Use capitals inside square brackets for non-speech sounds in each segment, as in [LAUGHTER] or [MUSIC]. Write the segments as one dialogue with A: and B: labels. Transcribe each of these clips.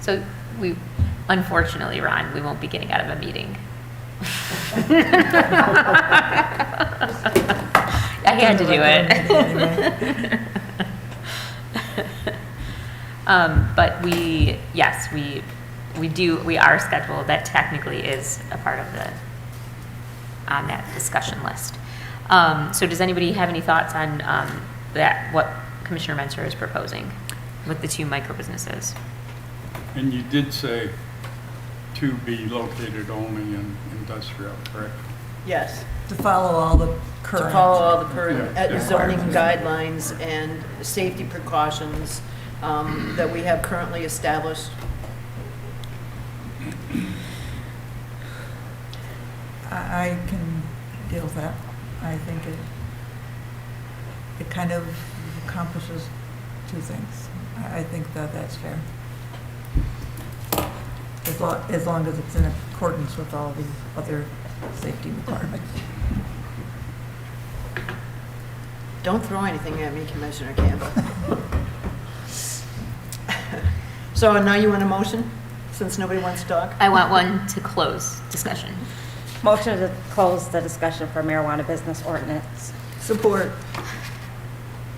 A: So we, unfortunately, Ron, we won't be getting out of a meeting. I had to do it. [LAUGHS] Um, But we, yes, we, we do, we are scheduled, that technically is a part of the, on that discussion list. Um, So does anybody have any thoughts on um, that, what Commissioner Mentor is proposing with the two micro businesses?
B: And you did say to be located only in industrial, correct?
C: Yes,
D: To follow all the
C: to
D: current.
C: follow all the current
B: Yeah,
C: uh,
B: yeah.
C: zoning guidelines and safety precautions um, that we have currently established.
D: I, I can deal with that. I think it, it kind of accomplishes two things. I, I think that that's fair. As lo, as long as it's in accordance with all the other safety requirements.
C: Don't throw anything at me, Commissioner Campbell. [LAUGHS] So now you want a motion, since nobody wants to talk?
A: I want one to close discussion.
E: Motion to close the discussion for marijuana business ordinance.
C: Support.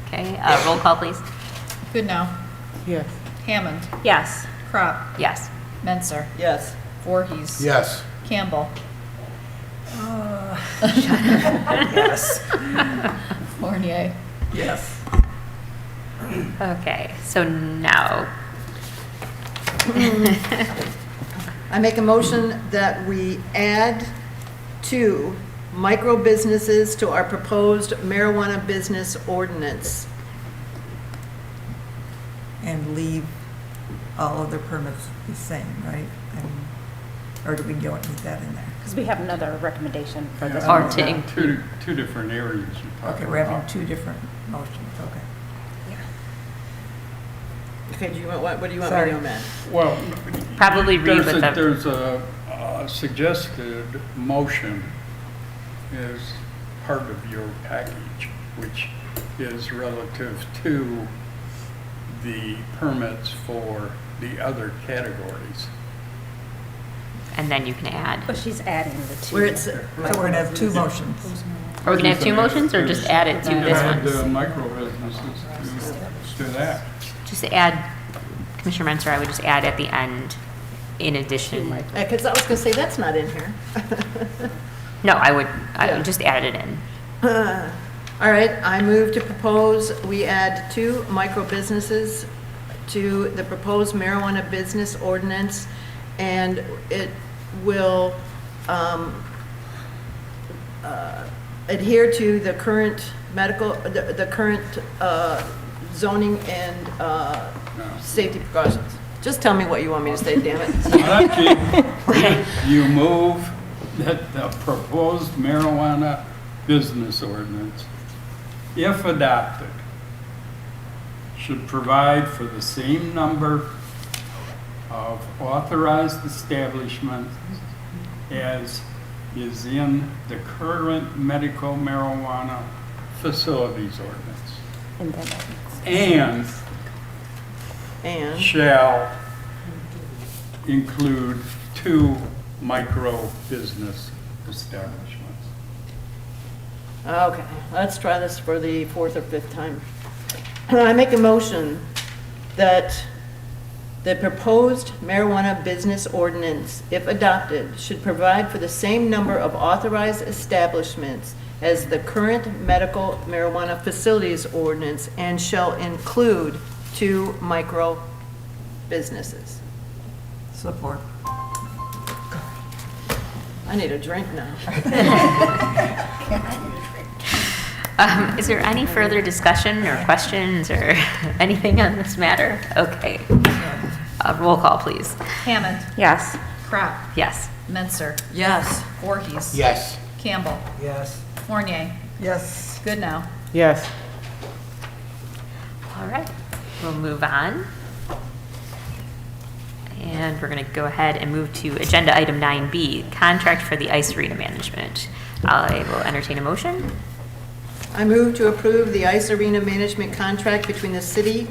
A: Okay, uh, roll call, please.
F: Good now.
D: Yes.
F: Hammond,
E: Yes.
F: Crop,
A: Yes.
F: Menzer,
C: Yes.
F: Voorhees.
G: Yes.
F: Campbell,
E: Uh, [LAUGHS]
D: Yes.
F: Fournier.
D: Yes.
A: Okay, so now,
C: I make a motion that we add two micro businesses to our proposed marijuana business ordinance.
D: And leave all other permits the same, right? I mean, Or do we don't need that in there?
E: Because we have another recommendation for this.
B: Yeah,
A: Or
E: one.
A: to in-
B: Two, two different areas you're
D: Okay,
B: talking about.
D: we're having two different motions, okay.
C: Okay, do you want, what what do you want me to
D: Sorry.
C: amend?
B: Well.
A: Probably read
B: there's
A: what
B: a-
A: the-
B: There's a uh, suggested motion is part of your package, which is relative to the permits for the other categories.
A: [LAUGHS] and then you can add.
E: But she's adding the two.
C: Where it's.
D: So we're gonna have two motions.
A: Are we gonna have two motions or just add it to this
B: Add
A: one?
B: the micro businesses to, to that.
A: Just add, Commissioner Mentor, I would just add at the end, in addition.
C: Because I was going to say, that's not in here.
A: No, I would, I
C: Yeah.
A: would just add it in.
C: [LAUGHS] All right, I move to propose, we add two micro businesses to the proposed marijuana business ordinance, and it will um, uh, adhere to the current medical, the the current uh, zoning and uh, safety precautions. Just tell me what you want me to say, damn it. [LAUGHS]
B: Archie, you move that the proposed marijuana business ordinance, if adopted, should provide for the same number of authorized establishments as is in the current medical marijuana facilities ordinance.
E: And then-
B: And
C: And.
B: shall include two micro-business establishments.
C: Okay, let's try this for the fourth or fifth time. I make a motion that the proposed marijuana business ordinance, if adopted, should provide for the same number of authorized establishments as the current medical marijuana facilities ordinance and shall include two micro businesses.
D: Support.
C: I need a drink now.
A: Um, Is there any further discussion or questions or [LAUGHS] anything on this matter? Okay. Uh, Roll call, please.
F: Hammond,
E: Yes.
F: Crop,
A: Yes.
F: Menzer,
C: Yes.
F: Voorhees.
G: Yes.
F: Campbell,
D: Yes.
F: Fournier.
D: Yes.
F: Good now.
H: Yes.
A: All right, we'll move on. And we're going to go ahead and move to Agenda Item 9B, Contract for the Ice Arena Management. I will entertain a motion.
C: I move to approve the ICE Arena management contract between the city